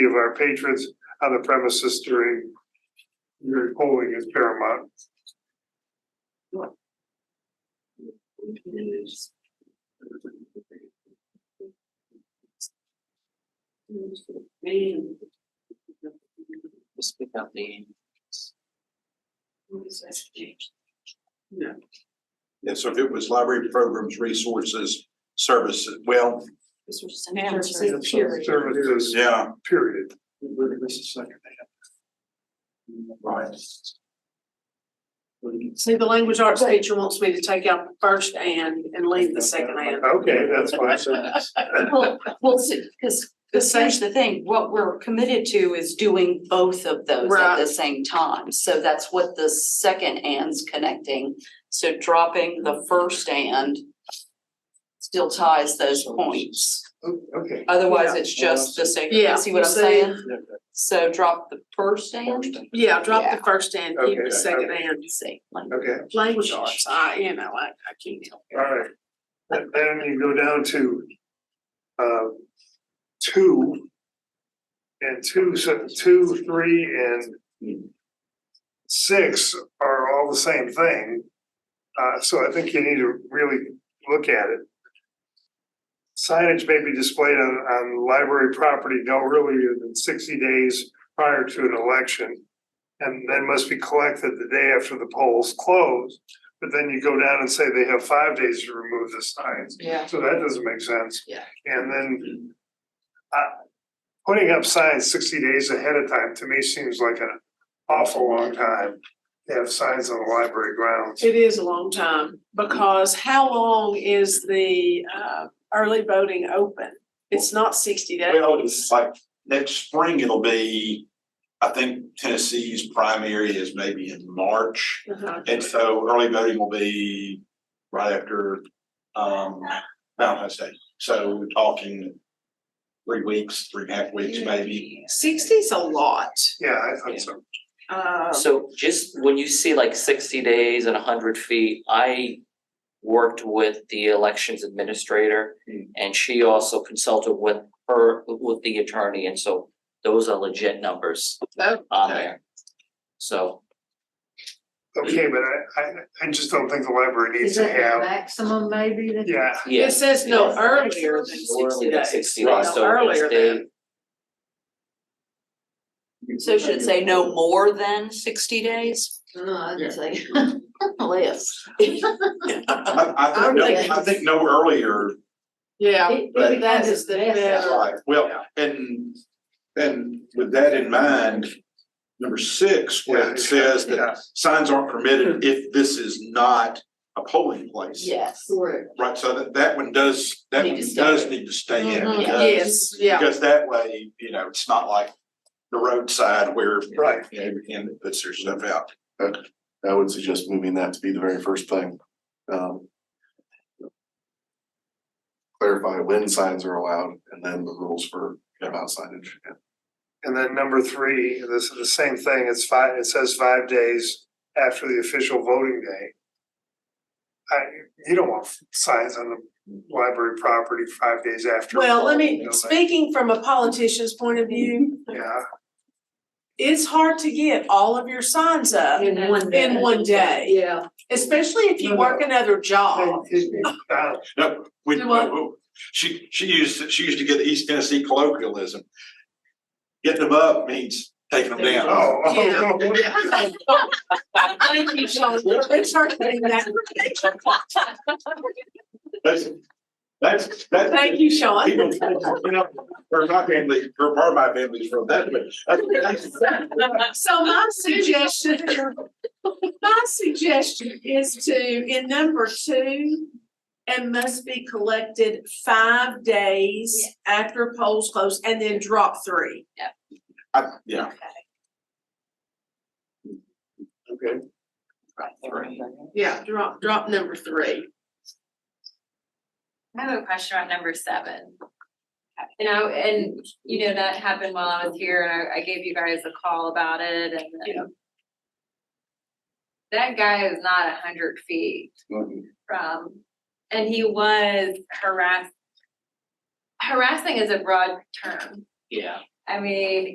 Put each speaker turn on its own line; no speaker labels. of our patrons on the premises during during polling is paramount.
Just pick up the.
No.
Yeah, so if it was library programs, resources, services, well,
This was
And
services, period.
Services,
yeah,
period.
right.
See, the language arts teacher wants me to take out the first and and leave the second and.
Okay, that's fine. So
Well, well, see, cause, 'cause here's the thing, what we're committed to is doing both of those at the
Right.
same time. So that's what the second and's connecting, so dropping the first and still ties those points.
oh, Okay.
Otherwise, it's just the
Yeah,
second, see what I'm
you see?
saying? So drop the first and,
Yeah, drop
Yeah.
the first and, keep
Okay,
the second
okay.
and.
see, like,
Okay,
Language arts, I, you know, I I can't help
all right. And Then you go down to uh two and two, so two, three and six are all the same thing. Uh, so I think you need to really look at it. Signage may be displayed on, on library property no earlier than sixty days prior to an election. And then must be collected the day after the polls close. But then you go down and say they have five days to remove the signs.
Yeah.
So that doesn't make sense.
Yeah.
And then, uh, putting up signs sixty days ahead of time to me seems like an awful long time. to have signs on the library grounds.
It is a long time, because how long is the uh early voting open? It's not sixty days.
Well, it's like next spring, it'll be, I think Tennessee's primary is maybe in March.
Uh-huh.
And so early voting will be right after um Valentine's Day. So we're talking three weeks, three and a half weeks maybe.
Sixty's a lot,
Yeah, I thought so.
uh,
So just when you see like sixty days and hundred feet, I worked with the elections administrator.
Hmm.
And she also consulted with her, with the attorney, and so those are legit numbers
so,
on
Okay.
there. So,
Okay, but I, I, I just don't think the library needs
Is
to
that the
have,
maximum maybe that?
yeah,
it
yes.
says no
Yes.
earlier than sixty
Earlier than
days.
60
Right.
days, so
No,
it's
earlier
day-
than.
so should it say no more than sixty days?
No, I'd say.
Less.
I I think, no- I think no earlier
Yeah,
It-
But-
it
that is the
becomes a mess.
better.
Right, well, and, and with that in mind, number six, where it says that
yeah, Hmm.
signs aren't permitted if this is not a polling place.
Yes.
Correct.
Right, so that, that one does, that
Need
one
to stay.
does need to stay in,
Mhm,
because,
yes, yeah,
because that way, you know, it's not like the roadside where,
right.
you know, everyone puts their stuff out.
I would suggest moving that to be the very first thing. Um, Clarify when signs are allowed and then the rules for about signage.
And then number three, this is the same thing, it's five, it says five days after the official voting day. I, you don't want signs on the library property five days after.
well, let
You
me,
know, like,
speaking from a politician's point of view,
Yeah,
it's hard to get all of your signs up,
In one day.
In one day.
Yeah.
especially if you work another job.
It- it- it- uh,
No, we,
Do what?
no, she, she used, she used to get the East Tennessee colloquialism. Getting them up means taking them down.
oh, oh,
Yeah.
oh,
Thank you, Sean. It's hard to get that.
That's, that's, that's.
Thank you, Sean.
People, you know, or my family, or part of my family's from that, but that's, that's,
So my suggestion, my suggestion is to, in number two, and must be collected five days after polls close, and then drop three.
I, yeah.
okay.
Yeah, drop, drop number three.
I have a question on number seven. You know, and you know, that happened while I was here and I, I gave you guys a call about it and.
Yeah.
That guy is not a hundred feet from, and he was harassed. Harassing is a broad term.
Yeah,
I mean,